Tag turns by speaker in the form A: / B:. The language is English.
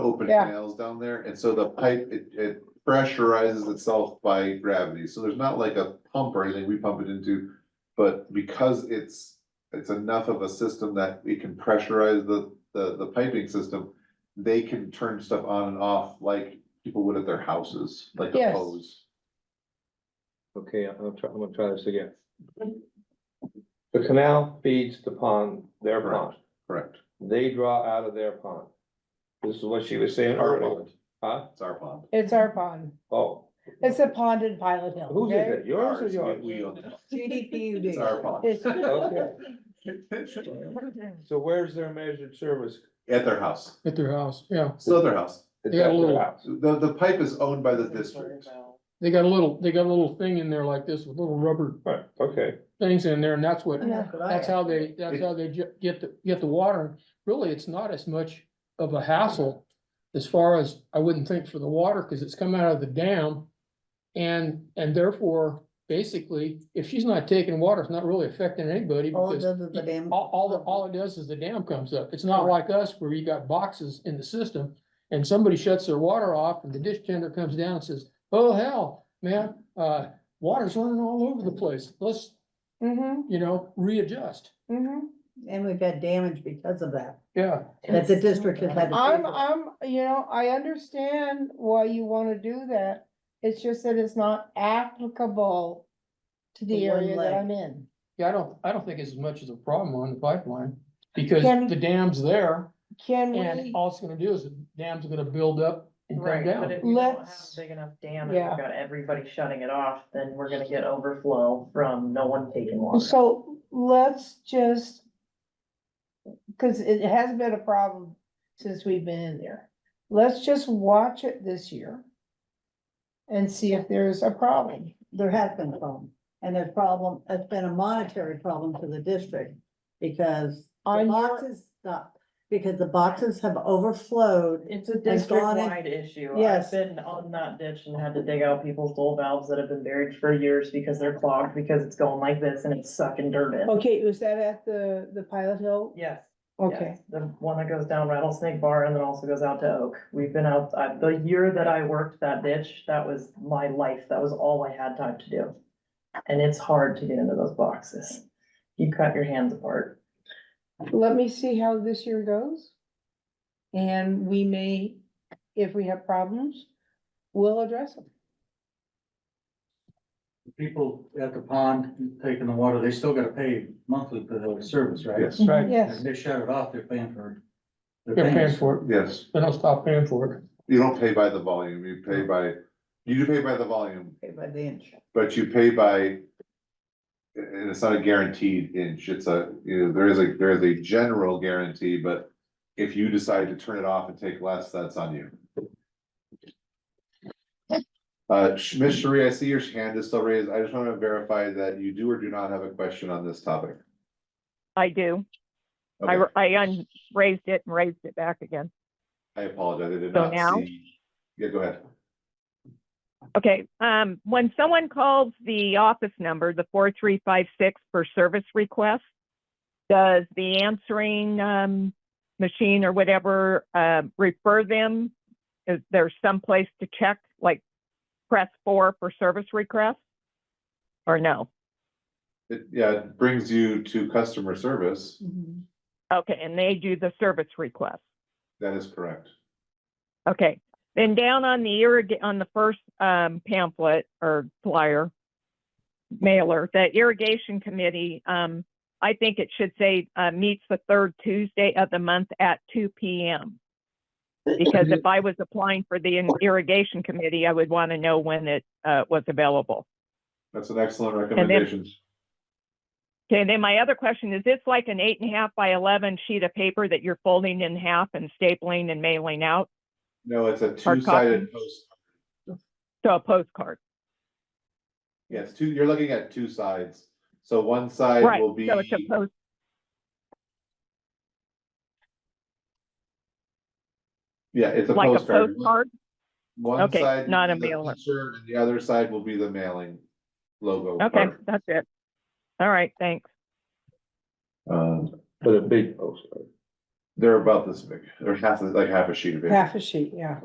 A: open
B: Yeah.
A: canals down there, and so the pipe, it, it pressurizes itself by gravity, so there's not like a pump or anything we pump it into. But because it's, it's enough of a system that it can pressurize the, the, the piping system, they can turn stuff on and off like people would at their houses, like a
B: Yes.
A: hose.
C: Okay, I'm gonna try, I'm gonna try this again. The canal feeds the pond, their pond.
A: Correct,
C: They draw out of their pond. This is what she was saying
A: Our
C: earlier. Huh?
A: it's our pond.
B: It's our pond.
C: Oh,
B: It's a pond in Pilot Hill.
C: whose
B: okay?
C: is it? Yours or
A: Ours, we-
C: yours?
A: we own it.
D: GDPUD.
A: It's our pond.
C: Okay,
A: At
C: so where's their measured service?
A: their house,
E: At their house, yeah.
A: it's still their house,
C: It's
E: They got
C: at
E: a
C: their
E: little-
C: house.
A: the, the pipe is owned by the district.
E: They got a little, they got a little thing in there like this with little rubber
C: Right, okay,
E: things in there and that's what,
B: Yeah.
E: that's how they, that's how they ju- get the, get the water. Really, it's not as much of a hassle as far as, I wouldn't think for the water, cause it's come out of the dam. And, and therefore, basically, if she's not taking water, it's not really affecting anybody
D: All Oh, it
E: because
D: does is the damn.
E: all, all, the- all it does is the dam comes up. It's not like us where you got boxes in the system and somebody shuts their water off and the dish tender comes down and says, oh hell, man, uh, water's running all over the place. Let's,
B: Mhm,
E: you know, readjust.
B: mhm.
D: And we've had damage because of that,
E: Yeah.
D: that the district has had. to pay
B: I'm,
D: for.
B: I'm, you know, I understand why you wanna do that. It's just that it's not applicable to the
D: The one
B: area that
D: leg.
B: I'm in.
E: Yeah, I don't, I don't think it's as much as a problem on the pipeline because
B: Can-
E: the dam's there
B: Can we,
E: and all it's gonna do is the dam's gonna build up and come
F: Right, but
E: down.
F: if you don't have
B: Let's-
F: a big enough dam and
B: yeah.
F: you've got everybody shutting it off, then we're gonna get overflow from no one taking water.
B: so let's just. Cause it has been a problem since we've been in there. Let's just watch it this year. And see if there's a problem.
D: There has been a problem, and there's problem, it's been a monetary problem to the district, because the
B: On your-
D: boxes stop, because the boxes have overflowed.
F: It's a
D: As long as-
F: district-wide issue.
D: Yes.
F: I've been on that ditch and had to dig out people's old valves that have been buried for years because they're clogged, because it's going like this and it's sucking dirt
D: Oh,
F: in.
B: Okay, was that at the, the Pilot Hill?
F: Yes.
B: Okay.
F: yes. The one that goes down Rattlesnake Bar and then also goes out to Oak. We've been out, uh, the year that I worked that ditch, that was my life. That was all I had time to do. And it's hard to get into those boxes. You cut your hands apart.
B: let me see how this year goes. And we may, if we have problems, we'll address them.
G: people at the pond taking the water, they still gotta pay monthly for the service, right?
A: Yes.
E: Right.
G: If
B: Yes,
G: they shut it off, they're paying for.
E: They're paying for it.
A: Yes,
E: Then I'll stop paying for it.
A: you don't pay by the volume, you pay by, you do pay by the volume,
D: Paid by the inch.
A: but you pay by. And it's not a guaranteed inch, it's a, you know, there is a, there is a general guarantee, but if you decide to turn it off and take less, that's on you. Uh, Sh- Ms. Sheree, I see your hand is still raised, I just wanna verify that you do or do not have a question on this topic.
H: I do. I,
A: Okay,
H: I un- raised it and raised it back again.
A: I apologize, I did
H: So
A: not
H: now?
A: see. Yeah, go ahead.
H: Okay, um, when someone calls the office number, the four, three, five, six for service request, does the answering, um, machine or whatever, uh, refer them? Is there someplace to check, like press four for service request? Or no?
A: It, yeah, it brings you to customer service,
H: Okay, and they do the service request.
A: that is correct.
H: Okay, then down on the irrig, on the first um, pamphlet or flyer, mailer, the irrigation committee, um, I think it should say, uh, meets the third Tuesday of the month at two P M. Because if I was applying for the irrigation committee, I would want to know when it, uh, was available.
A: That's an excellent recommendation.
H: Okay, then my other question is, it's like an eight and a half by eleven sheet of paper that you're folding in half and stapling and mailing out,
A: No, it's a
H: Hard
A: two-sided post.
H: so a postcard.
A: Yes, two, you're looking at two sides. So one side
H: Right,
A: will be,
H: so it's a post.
A: yeah, it's a
H: like a
A: postcard.
H: postcard.
A: One
H: Okay,
A: side
H: not
A: will
H: a
A: be the
H: mailer.
A: picture, And the other side will be the mailing logo.
H: Okay,
A: part.
H: that's it. All right, thanks.
A: Um,
C: but a big poster.
A: They're about this big, they're half, like half a sheet of paper.
B: half a sheet, yeah.